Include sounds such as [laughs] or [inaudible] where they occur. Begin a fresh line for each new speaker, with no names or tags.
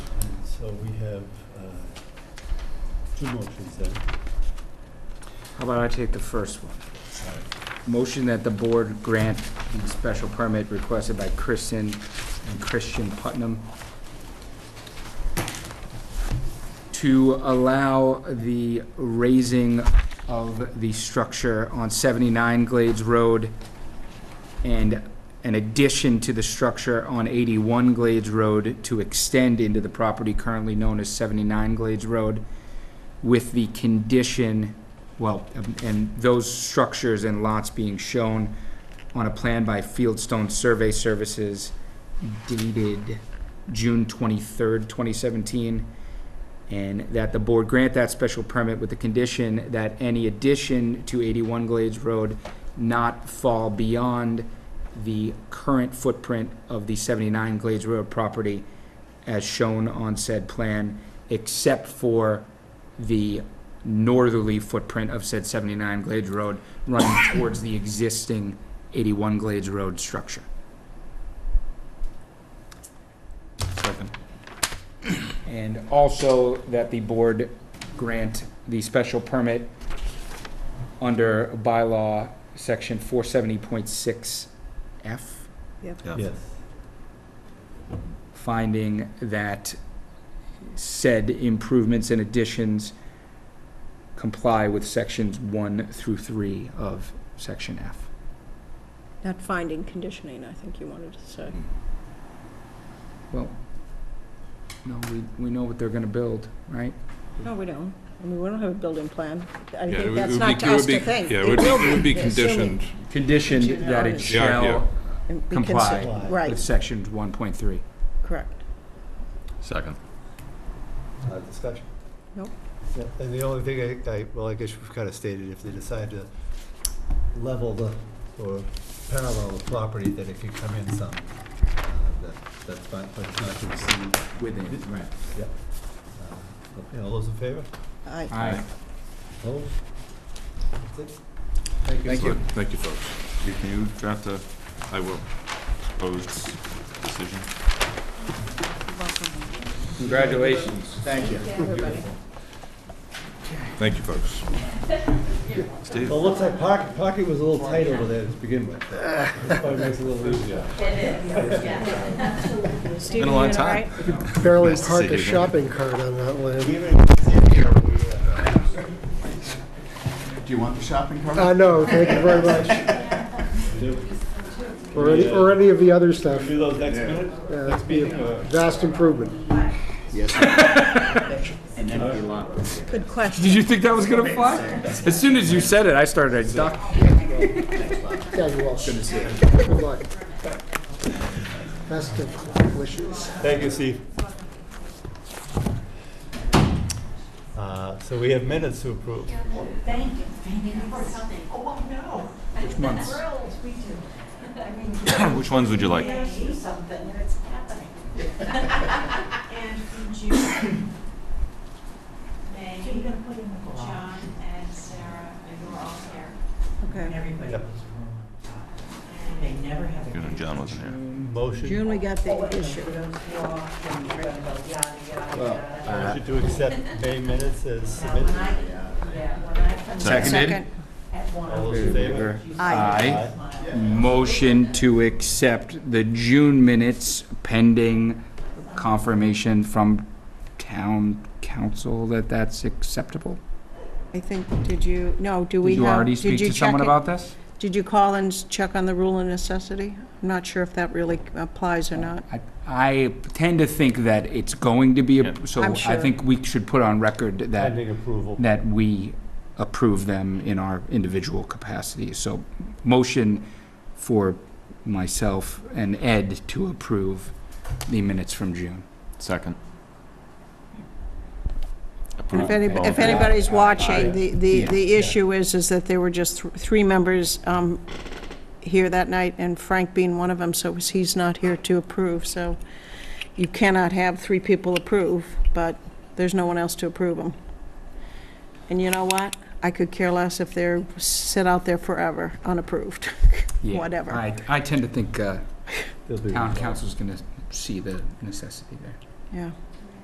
So we have uh, two motions then.
How about I take the first one? Motion that the board grant the special permit requested by Kristen and Christian Putnam to allow the raising of the structure on 79 Glades Road and an addition to the structure on 81 Glades Road to extend into the property currently known as 79 Glades Road with the condition well, um, and those structures and lots being shown on a plan by Fieldstone Survey Services dated June twenty-third, twenty seventeen, and that the board grant that special permit with the condition that any addition to eighty-one Glades Road not fall beyond the current footprint of the seventy-nine Glades Road property as shown on said plan, except for the northerly footprint of said 79 Glades Road running [coughs] towards the existing 81 Glades Road structure. Second. And also that the board grant the special permit under bylaw section 470.6F,
Yes.
finding that said improvements and additions comply with sections one through three of section F.
Not finding conditioning, I think you wanted to say.
Mm-hmm.
Well, no, we, we know what they're gonna build, right?
No, we don't. I mean, we don't have a building plan. I
Yeah, it
think
would-
that's
it would
not
be-
to
it would
us to
be-
think.
Yeah, it would be-
will
it would be
be, assuming
conditioned.
Conditioned that it
Yeah,
yeah.
shall
and be
comply
consi-
Comply.
with
Right,
sections one point three.
correct.
Second.
Uh, discussion?
Nope.
Yeah, And the only thing I, I, well, I guess we've kind of stated, if they decide to level the, or parallel the property, that it could come in some. Uh, That, that's fine, but it's not to exceed,
Within, right.
uh, okay, all those in favor?
I-
Aye.
Opposed? That's it. Thank you.
Thank you, folks. Can you draft a, I will, proposed decision?
Congratulations. Thank you.
Everybody.
Thank you, folks. Steve?
Well, it looks like pocket, pocket was a little tight over there to begin with. That's probably makes it a little easier.
Stephen, you
a long
in all
time.
right?
barely
Nice to
park
see
a
you again.
shopping cart on that land.
uh,
Do you want the shopping cart?
I know, thank you very
[laughs]
much. Or any, or any of the other stuff.
Do those next minute?
Yeah, That'd be a vast improvement.
Good question.
Did you think that was gonna fly? As soon as you said it, I started, I ducked.
Yeah, you're welcome. Good luck. Best of wishes.
Thank you, Steve. Uh, So we have minutes to approve.
Thank you, thank you for coming. Oh, no. Which
months?
Thrilled, we do. I mean,
[coughs] Which ones would you like?
we gotta do something, and it's
[laughs]
happening. And in June, May, John and Sarah, and you were all there,
Okay.
Everybody
Yep.
was wrong. They never have a.
You know, John wasn't here.
Motion,
June, we got the issue.
motion to accept May minutes as
Now, when
submitted.
I, yeah, when I come
Second.
Second.
at one.
All those in favor?
Uh, Aye.
Aye.
Motion to accept the June minutes pending confirmation from town council that that's acceptable?
I think, did you, no, do we
Did
have?
you already speak to
you check
someone
it?
about this?
Did you call and s- check on the rule of necessity? I'm not sure if that really applies or not.
I- I tend to think that it's going to be, a-
Yeah.
so
I'm
I
sure.
think we should put on record that,
Pending approval.
that we approve them in our individual capacities. So motion for myself and Ed to approve the minutes from June.
Second.
And
Approved.
If any,
All in
if
favor?
anybody's watching, the, the,
Yeah.
the issue is, is that there were just th- three members, um, here that night, and Frank being one of them, so he's not here to approve, so you cannot have three people approve, but there's no one else to approve them. And you know what? I could care less if they're, sit out there forever, unapproved,
Yeah.
whatever.
I, I tend to think uh,
They'll be-
town council's gonna see the necessity there.
yeah.